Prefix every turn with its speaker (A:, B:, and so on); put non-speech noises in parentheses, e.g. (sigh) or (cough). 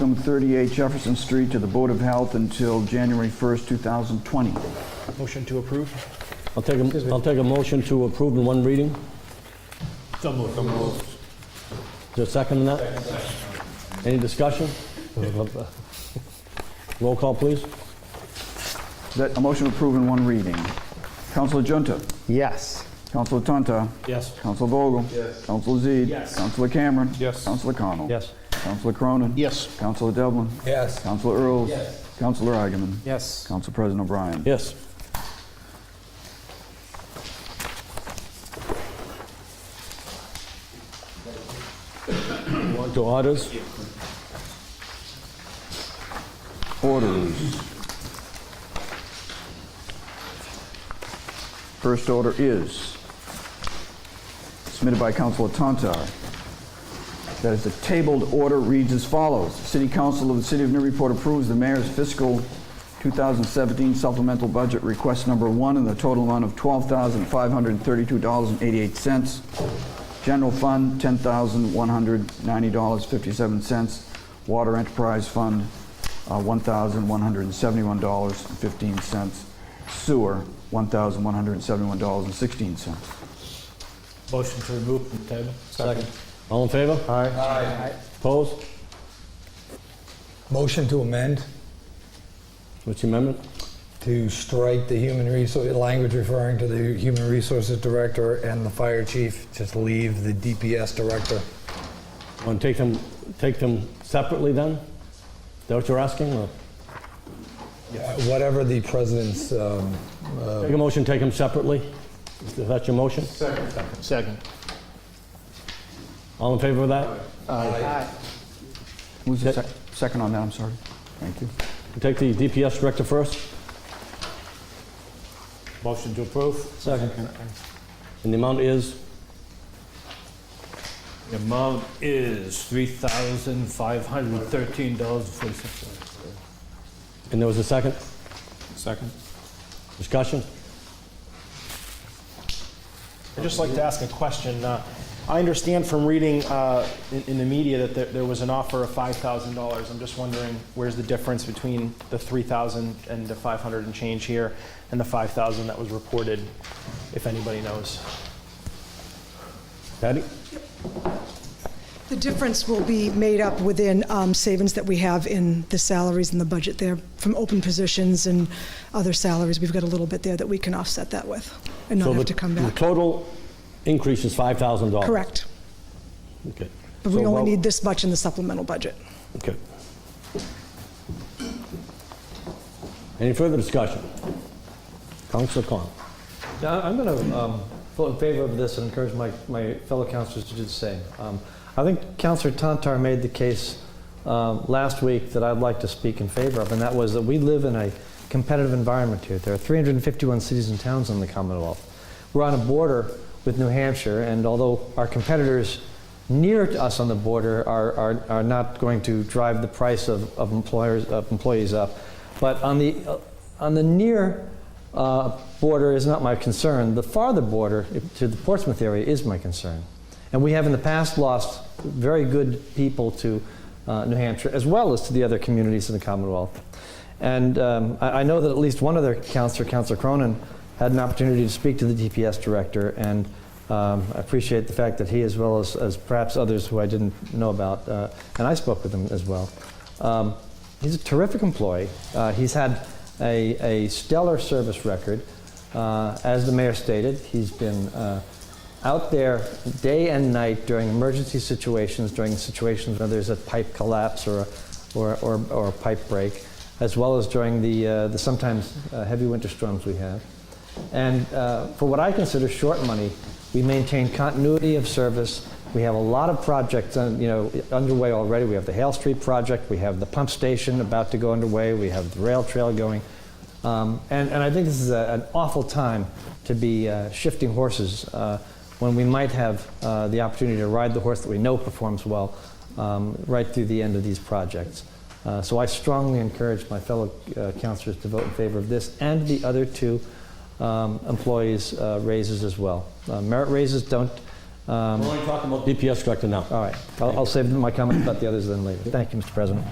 A: from 38 Jefferson Street to the Board of Health until January 1st, 2020.
B: Motion to approve?
C: I'll take, a- I'll take a motion to approve in one reading.
B: So moved.
C: Is there a second on that? Any discussion? (laughs) Roll call, please.
A: Is that a motion to approve in one reading? Counselor Junta?
D: Yes.
A: Counselor Tonto?
B: Yes.
A: Counselor Vogel? Yes. Counselor Z?
B: Yes.
A: Counselor Cameron?
B: Yes.
A: Counselor Connell?
C: Yes.
A: Counselor Cronin?
B: Yes.
A: Counselor Devlin?
B: Yes.
A: Counselor Earls? Yes. Counselor Agaman?
B: Yes.
A: Council President O'Brien?
C: Yes. Want to orders?
A: Orders. First order is submitted by Councilor Tantar. That is, the tabled order reads as follows. City Council of the City of Newburyport approves the mayor's fiscal 2017 supplemental budget request number one in the total amount of $12,532.88. General Fund, $10,190.57. Water Enterprise Fund, uh, $1,171.15. Sewer, $1,171.16.
B: Motion to remove from table?
C: Second. All in favor? Aye. Opposed?
E: Motion to amend,
C: What's the amendment?
E: to strike the human resource, language referring to the human resources director and the fire chief, just leave the DPS director.
C: Want to take them, take them separately then? Is that what you're asking? or-
E: Whatever the president's, um,
C: Take a motion, take them separately? Is that your motion?
B: Second.
C: All in favor of that?
A: Who's the sec- second on that? I'm sorry. Thank you.
C: Take the DPS director first?
B: Motion to approve?
C: Second. And the amount is?
B: The amount is $3,513.46.
C: And there was a second?
B: Second.
C: Discussion?
F: I'd just like to ask a question. Uh, I understand from reading uh, in in the media that there- there was an offer of $5,000. I'm just wondering, where's the difference between the 3,000 and the 500 and change here, and the 5,000 that was reported, if anybody knows?
C: Patty?
G: The difference will be made up within um, savings that we have in the salaries and the budget there from open positions and other salaries. We've got a little bit there that we can offset that with and
C: So
G: not
C: the-
G: have to come
C: The
G: back.
C: total increase is $5,000?
G: Correct.
C: Okay.
G: But
C: So
G: we only
C: about-
G: need this much in the supplemental budget.
C: Okay. Any further discussion? Councilor Con.
H: Yeah, I- I'm going to vote in favor of this and encourage my, my fellow councilors to do the same. Um, I think Councilor Tantar made the case um, last week that I'd like to speak in favor of, and that was that we live in a competitive environment here. There are 351 cities and towns in the Commonwealth. We're on a border with New Hampshire, and although our competitors near to us on the border are, are, are not going to drive the price of, of employers of employees up. But on the uh, on the near uh, border is not my concern. The farther border if- to the Portsmouth area is my concern, and we have in the past lost very good people to uh, New Hampshire as well as to the other communities in the Commonwealth. And um, I, I know that at least one other counselor, Counselor Cronin, had an opportunity to speak to the DPS director, and um, I appreciate the fact that he, as well as, as perhaps others who I didn't know about, uh, and I spoke with him as well. Um, he's a terrific employee. Uh, he's had a, a stellar service record. Uh, as the mayor stated, he's been uh, out there day and night during emergency situations, during situations where there's a pipe collapse or a, or, or, or a pipe break, as well as during the, uh, the sometimes uh, heavy winter storms we have. And uh, for what I consider short money, we maintain continuity of service. We have a lot of projects uh, you know, underway already. We have the Hale Street project, we have the pump station about to go underway, we have the rail trail going. Um, and, and I think this is a, an awful time to be uh, shifting horses uh, when we might have uh, the opportunity to ride the horse that we know performs well um, right through the end of these projects. Uh, so I strongly encourage my fellow uh, councilors to vote in favor of this and the other two um, employees' uh, raises as well. Uh, merit raises don't. Um,
C: We're only talking about DPS director now.
H: all right, I'll, I'll save my comments about the others then later. Thank you, Mr. President.